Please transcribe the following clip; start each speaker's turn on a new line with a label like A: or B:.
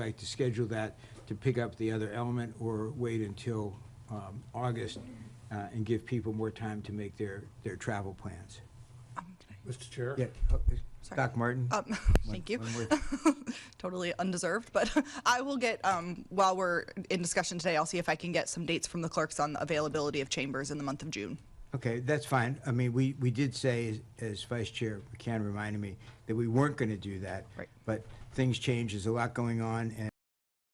A: like to schedule that to pick up the other element or wait until um, August uh, and give people more time to make their, their travel plans.
B: Mr. Chair?
A: Yeah, uh, Doc Martin?
C: Um, thank you.
A: one word.
C: totally undeserved, but I will get um, while we're in discussion today. I'll see if I can get some dates from the clerks on the availability of chambers in the month of June.
A: Okay, that's fine. I mean, we, we did say, as- as Vice Chair McCann reminded me, that we weren't going to do that.
C: Right.
A: But things change, there's a lot going on, and